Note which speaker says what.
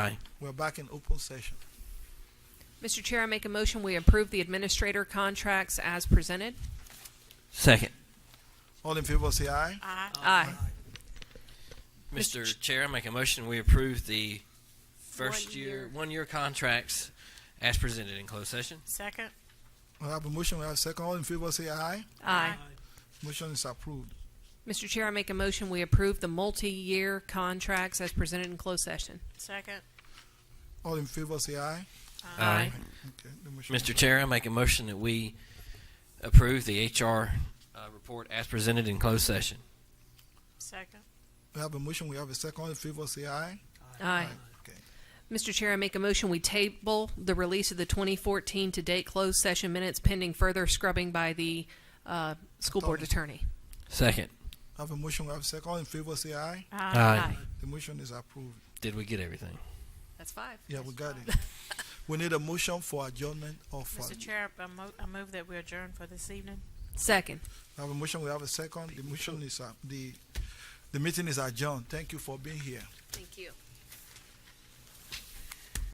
Speaker 1: We're back in open session.
Speaker 2: Mr. Chair, I make a motion, we approve the administrator contracts as presented.
Speaker 3: Second.
Speaker 1: All in favor say aye.
Speaker 2: Aye. Mr.
Speaker 3: Mr. Chair, I make a motion we approve the first
Speaker 4: One
Speaker 3: year,
Speaker 4: year.
Speaker 3: one year contracts as presented in closed session.
Speaker 4: Second?
Speaker 1: We have a motion, we have a second. All in favor say aye.
Speaker 2: Aye.
Speaker 1: Motion is approved.
Speaker 2: Mr. Chair, I make a motion, we approve the multi-year contracts as presented in closed session.
Speaker 4: Second?
Speaker 1: All in favor say aye.
Speaker 2: Aye.
Speaker 1: Okay. the motion-
Speaker 3: Mr. Chair, I make a motion that we approve the HR uh, report as presented in closed session.
Speaker 4: Second?
Speaker 1: We have a motion, we have a second. All in favor say aye.
Speaker 2: Aye.
Speaker 1: Okay.
Speaker 2: Mr. Chair, I make a motion, we table the release of the 2014 to date closed session minutes pending further scrubbing by the uh, school board attorney.
Speaker 3: Second.
Speaker 1: We have a motion, we have a second. All in favor say aye.
Speaker 3: Aye.
Speaker 1: The motion is approved.
Speaker 3: Did we get everything?
Speaker 2: That's five.
Speaker 1: Yeah, we got it. We need a motion for adjournment of. uh,
Speaker 4: Mr. Chair, I move, I move that we adjourn for this evening.
Speaker 2: Second.
Speaker 1: We have a motion, we have a second. The motion is, uh, the, the meeting is adjourned. Thank you for being here.
Speaker 2: Thank you.